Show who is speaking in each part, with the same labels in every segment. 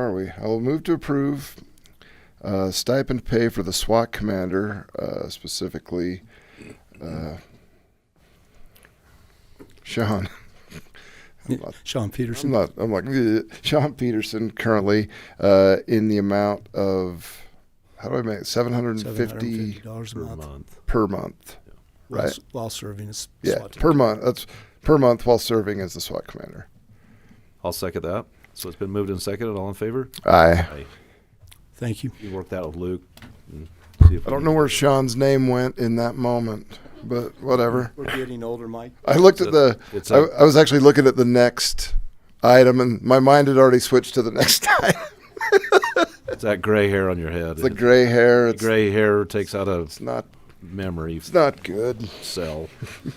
Speaker 1: are we? I will move to approve uh, stipend pay for the SWAT commander, uh, specifically uh, Sean.
Speaker 2: Sean
Speaker 1: I'm
Speaker 2: Peterson.
Speaker 1: not. I'm like "Ugh." Sean Peterson currently uh, in the amount of how do I make it? seven hundred and fifty
Speaker 2: dollars a
Speaker 3: per
Speaker 2: month
Speaker 3: month.
Speaker 1: per month?
Speaker 2: while
Speaker 1: right.
Speaker 2: s- while serving as
Speaker 1: Yeah,
Speaker 2: SWAT team.
Speaker 1: per month. That's per month while serving as the SWAT commander.
Speaker 3: I'll second that. So it's been moved and seconded. All in favor?
Speaker 1: Aye.
Speaker 2: Thank you.
Speaker 3: You work that with Luke. and see if
Speaker 1: I
Speaker 3: we
Speaker 1: don't
Speaker 3: can-
Speaker 1: know where Sean's name went in that moment, but whatever.
Speaker 2: We're getting older, Mike.
Speaker 1: I looked
Speaker 3: It's
Speaker 1: at the.
Speaker 3: a- it's
Speaker 1: I
Speaker 3: a-
Speaker 1: I was actually looking at the next item, and my mind had already switched to the next item.
Speaker 3: It's that gray hair on your head.
Speaker 1: It's the gray hair. It's
Speaker 3: gray hair takes out a
Speaker 1: It's not.
Speaker 3: memory
Speaker 1: It's not good.
Speaker 3: cell.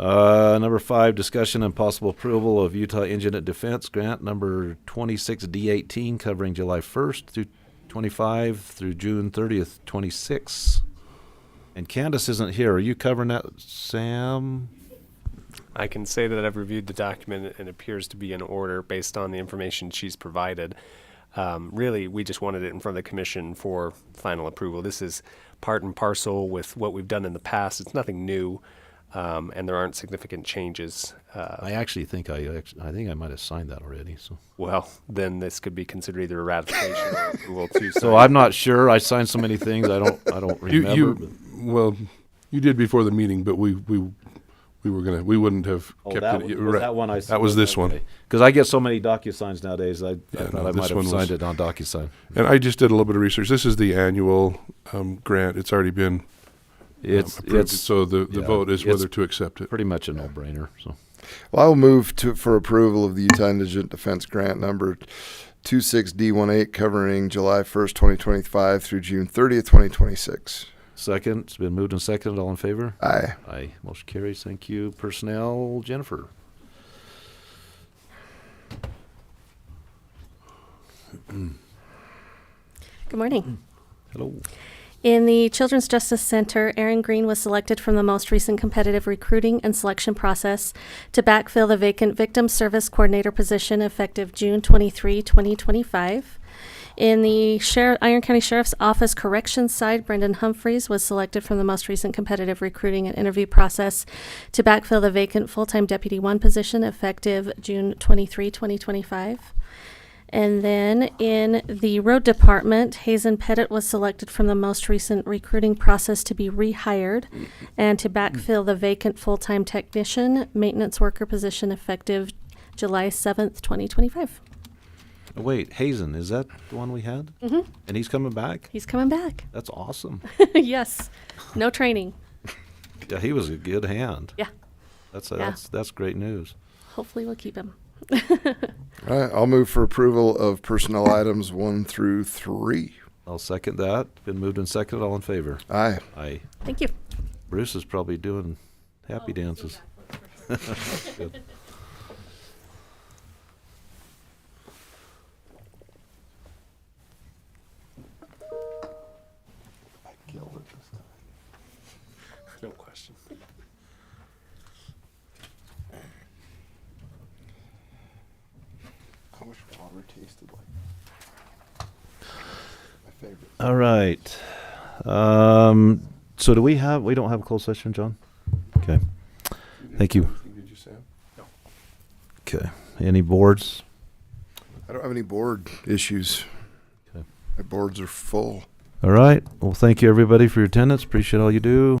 Speaker 3: Uh, number five, discussion and possible approval of Utah Indigent Defense Grant number 26D18 covering July 1st through 25 through June 30th, 26. And Candace isn't here. Are you covering that, Sam?
Speaker 4: I can say that I've reviewed the document and it appears to be in order based on the information she's provided. Um, really, we just wanted it in front of the commission for final approval. This is part and parcel with what we've done in the past. It's nothing new, um, and there aren't significant changes. Uh,
Speaker 3: I actually think I act- I think I might have signed that already. So
Speaker 4: well, then this could be considered either a ratification or approval too.
Speaker 3: so I'm not sure. I signed so many things. I don't I don't
Speaker 5: You,
Speaker 3: remember. but-
Speaker 5: you, well, you did before the meeting, but we, we, we were gonna, we wouldn't have
Speaker 3: Oh,
Speaker 5: kept
Speaker 3: that
Speaker 5: it.
Speaker 3: one-
Speaker 5: You're
Speaker 3: was
Speaker 5: right.
Speaker 3: that one I
Speaker 5: That was this one.
Speaker 3: Because I get so many DocuSigns nowadays, I, I
Speaker 5: Yeah,
Speaker 3: thought
Speaker 5: no,
Speaker 3: I
Speaker 5: this
Speaker 3: might have
Speaker 5: one was-
Speaker 3: signed it on DocuSign.
Speaker 5: And I just did a little bit of research. This is the annual, um, grant. It's already been um,
Speaker 3: It's
Speaker 5: approved.
Speaker 3: it's
Speaker 5: So the, the
Speaker 3: yeah,
Speaker 5: vote is
Speaker 3: it's
Speaker 5: whether to accept it.
Speaker 3: pretty much a no-brainer. So
Speaker 1: Well, I'll move to, for approval of the Utah Indigent Defense Grant number 26D18 covering July 1st, 2025 through June 30th, 2026.
Speaker 3: second, it's been moved and seconded. All in favor?
Speaker 1: Aye.
Speaker 3: Aye. Motion carries. Thank you. Personnel, Jennifer.
Speaker 6: Good morning.
Speaker 3: Hello.
Speaker 6: In the Children's Justice Center, Erin Green was selected from the most recent competitive recruiting and selection process to backfill the vacant Victim Service Coordinator position effective June 23, 2025. In the Sheriff, Iron County Sheriff's Office Corrections side, Brendan Humphreys was selected from the most recent competitive recruiting and interview process to backfill the vacant full-time Deputy 1 position effective June 23, 2025. And then in the road department, Hazen Pettit was selected from the most recent recruiting process to be rehired and to backfill the vacant full-time technician maintenance worker position effective July seventh, twenty twenty-five.
Speaker 3: Oh, wait, Hazen, is that the one we had? Mm-hmm. And he's coming back.
Speaker 6: He's coming back.
Speaker 3: That's awesome.
Speaker 6: yes. No training.
Speaker 3: yeah, he was a good hand.
Speaker 6: Yeah.
Speaker 3: That's that's that's great news.
Speaker 6: Hopefully we'll keep him.
Speaker 1: All right, I'll move for approval of personnel items 1 through 3.
Speaker 3: I'll second that. Been moved and seconded. All in favor?
Speaker 1: Aye.
Speaker 3: Aye.
Speaker 6: Thank you.
Speaker 3: Bruce is probably doing happy dances. Good.
Speaker 4: no question.
Speaker 1: I wish water tasted like my favorite.
Speaker 3: All right. Um, so do we have, we don't have a closed session, John? Okay. Thank you.
Speaker 5: Did you, Sam?
Speaker 3: Okay. Any boards?
Speaker 1: I don't have any board issues.
Speaker 3: Okay.
Speaker 1: My boards are full.
Speaker 3: All right. Well, thank you everybody for your attendance. Appreciate all you do.